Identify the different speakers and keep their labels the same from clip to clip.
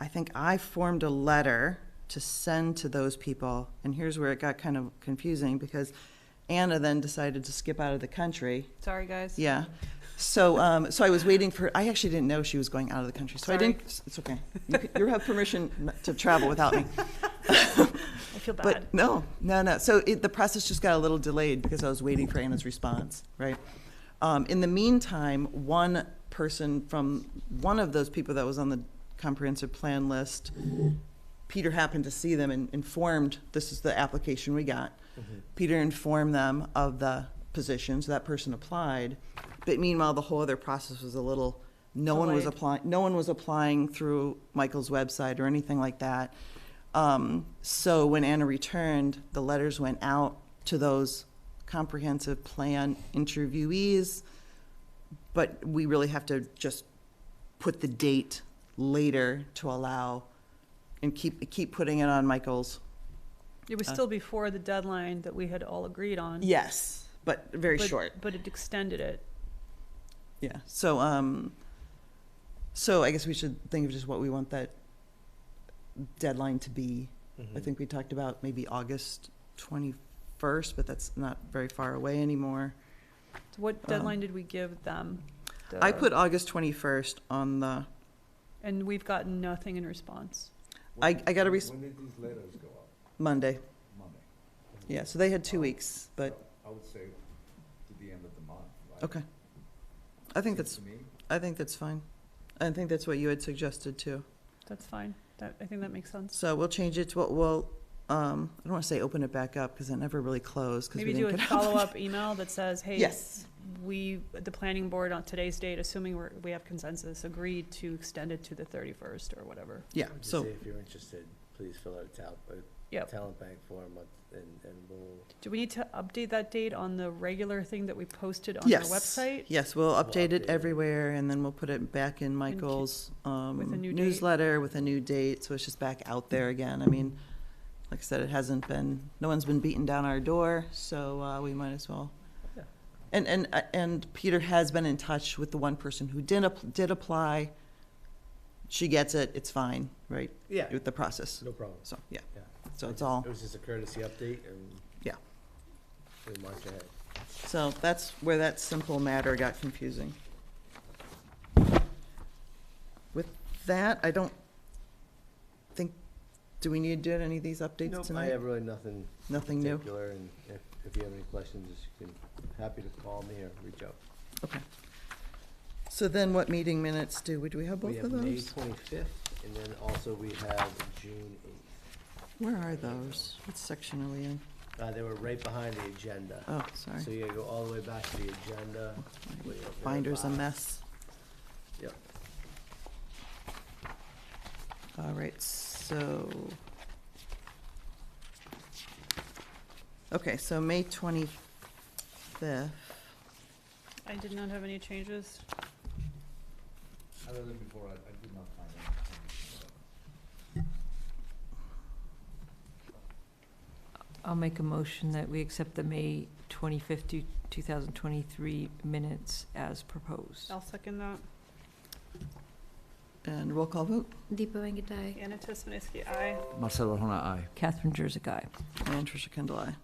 Speaker 1: I think I formed a letter to send to those people, and here's where it got kind of confusing, because Anna then decided to skip out of the country.
Speaker 2: Sorry, guys.
Speaker 1: Yeah. So, um, so I was waiting for, I actually didn't know she was going out of the country, so I
Speaker 2: Sorry.
Speaker 1: didn't, it's okay. You c- You have permission not to travel without me.
Speaker 2: I feel bad.
Speaker 1: But no, no, no. So it, the process just got a little delayed because I was waiting for Anna's response, right? Um, in the meantime, one person from one of those people that was on the comprehensive plan list, Peter happened to see them and informed, this is the application we got. Peter informed them of the position, so that person applied. But meanwhile, the whole other process was a little, no one was
Speaker 2: Delayed.
Speaker 1: applying, no one was applying through Michael's website or anything like that. Um, so when Anna returned, the letters went out to those comprehensive plan interviewees. But we really have to just put the date later to allow and keep, keep putting it on Michael's.
Speaker 2: It
Speaker 1: uh,
Speaker 2: was still before the deadline that we had all agreed on.
Speaker 1: Yes. But very
Speaker 2: but-
Speaker 1: short.
Speaker 2: But it extended it.
Speaker 1: Yeah, so, um, so I guess we should think of just what we want that deadline to be. I think we talked about maybe August twenty-first, but that's not very far away anymore.
Speaker 2: So what deadline did we give them?
Speaker 1: Uh-huh. I
Speaker 2: The-
Speaker 1: put August twenty-first on the,
Speaker 2: And we've gotten nothing in response.
Speaker 1: I, I got a res-
Speaker 3: When did these letters go out?
Speaker 1: Monday.
Speaker 3: Monday.
Speaker 1: Yeah, so they had two weeks, but,
Speaker 3: I would say to the end of the month. right?
Speaker 1: okay. I think
Speaker 3: Seems
Speaker 1: that's,
Speaker 3: to me,
Speaker 1: I think that's fine. I think that's what you had suggested too.
Speaker 2: That's fine. That, I think that makes sense.
Speaker 1: So we'll change it to, what we'll, um, I don't wanna say open it back up, cause it never really closed, cause we
Speaker 2: Maybe do
Speaker 1: didn't
Speaker 2: a
Speaker 1: get.
Speaker 2: follow-up email that says, hey.
Speaker 1: Yes,
Speaker 2: We, the planning board on today's date, assuming we're, we have consensus, agreed to extend it to the thirty-first or whatever.
Speaker 1: yeah,
Speaker 4: Just
Speaker 1: so.
Speaker 4: say If you're interested, please fill out a talent, a
Speaker 2: Yep.
Speaker 4: talent bank form uh, and, and we'll.
Speaker 2: Do we need to update that date on the regular thing that we posted on our website?
Speaker 1: Yes, we'll update
Speaker 4: update
Speaker 1: it
Speaker 4: it.
Speaker 1: everywhere, and then we'll put it back in Michael's um,
Speaker 2: with a new date.
Speaker 1: newsletter with a new date, so it's just back out there again. I mean, like I said, it hasn't been, no one's been beating down our door, so uh, we might as well.
Speaker 4: Yeah.
Speaker 1: And, and, uh, and Peter has been in touch with the one person who did, app- did apply. She gets it, it's fine, right,
Speaker 4: Yeah,
Speaker 1: with the process.
Speaker 4: no problem.
Speaker 1: So, yeah,
Speaker 4: Yeah.
Speaker 1: so it's all,
Speaker 4: It was just a courtesy update and.
Speaker 1: Yeah.
Speaker 4: We march ahead.
Speaker 1: so that's where that simple matter got confusing. With that, I don't think, do we need to do any of these updates
Speaker 4: I
Speaker 1: tonight?
Speaker 4: have really nothing
Speaker 1: Nothing new?
Speaker 4: particular and if, if you have any questions, you can, happy to call me or reach out.
Speaker 1: Okay. So then what meeting minutes do we, do we have
Speaker 4: We
Speaker 1: both
Speaker 4: have
Speaker 1: of
Speaker 4: May
Speaker 1: those?
Speaker 4: twenty-fifth and then also we have June eighth.
Speaker 1: Where are those? What section are we in?
Speaker 4: Uh, they were right behind the agenda.
Speaker 1: Oh, sorry.
Speaker 4: So you gotta go all the way back to the agenda.
Speaker 1: My
Speaker 4: way up there at
Speaker 1: Binder's a
Speaker 4: bottom.
Speaker 1: mess.
Speaker 4: Yep.
Speaker 1: All right, so. Okay, so May twenty-fifth.
Speaker 2: I did not have any changes.
Speaker 3: Other than before, I, I did not find anything.
Speaker 5: I'll make a motion that we accept the May 25th, to 2023 minutes as proposed.
Speaker 2: I'll second that.
Speaker 1: And roll call vote,
Speaker 6: Deepa Vangitai.
Speaker 2: Anna Tesmeniski, aye.
Speaker 3: Marcelo Hona, aye.
Speaker 5: Catherine Jersey, aye.
Speaker 1: and Tricia Kendall, aye.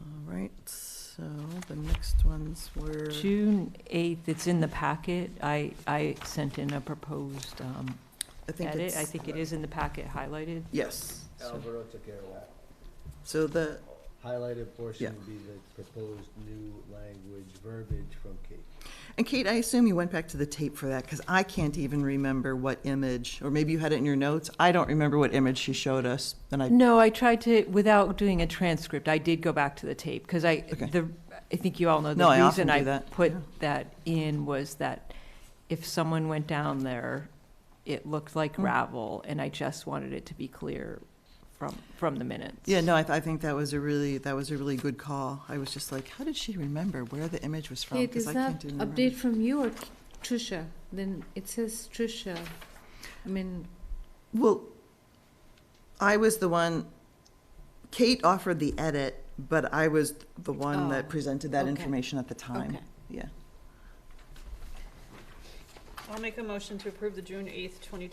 Speaker 1: All right, so the next ones were,
Speaker 5: June 8th, it's in the packet. I, I sent in a proposed um,
Speaker 1: I think
Speaker 5: edit. I
Speaker 1: it's,
Speaker 5: think it is in the packet highlighted.
Speaker 1: yes. So-
Speaker 4: Alberto took care of that.
Speaker 1: So the,
Speaker 4: Highlighted
Speaker 1: Yeah.
Speaker 4: portion would be the proposed new language verbiage from Kate.
Speaker 1: and Kate, I assume you went back to the tape for that, because I can't even remember what image, or maybe you had it in your notes. I don't remember what image she showed us, and I,
Speaker 5: No, I tried to, without doing a transcript, I did go back to the tape, because I,
Speaker 1: Okay.
Speaker 5: the, I think you all know,
Speaker 1: No, I
Speaker 5: the
Speaker 1: often
Speaker 5: reason
Speaker 1: do
Speaker 5: I
Speaker 1: that,
Speaker 5: put
Speaker 1: yeah.
Speaker 5: that in was that if someone went down there, it looked like
Speaker 1: Mm.
Speaker 5: gravel, and I just wanted it to be clear from, from the minutes.
Speaker 1: yeah, no, I, th- I think that was a really, that was a really good call. I was just like, how did she remember where the image was from?
Speaker 6: It
Speaker 1: Oh, 'Cause
Speaker 6: is
Speaker 1: I
Speaker 6: not
Speaker 1: can't even remember.
Speaker 6: update from you or Trisha, then it says Trisha. I mean,
Speaker 1: Well, I was the one, Kate offered the edit, but I was the one that
Speaker 6: Oh,
Speaker 1: presented that
Speaker 6: okay.
Speaker 1: information at the time.
Speaker 6: Okay.
Speaker 1: Yeah.
Speaker 2: I'll make a motion to approve the June eighth, twenty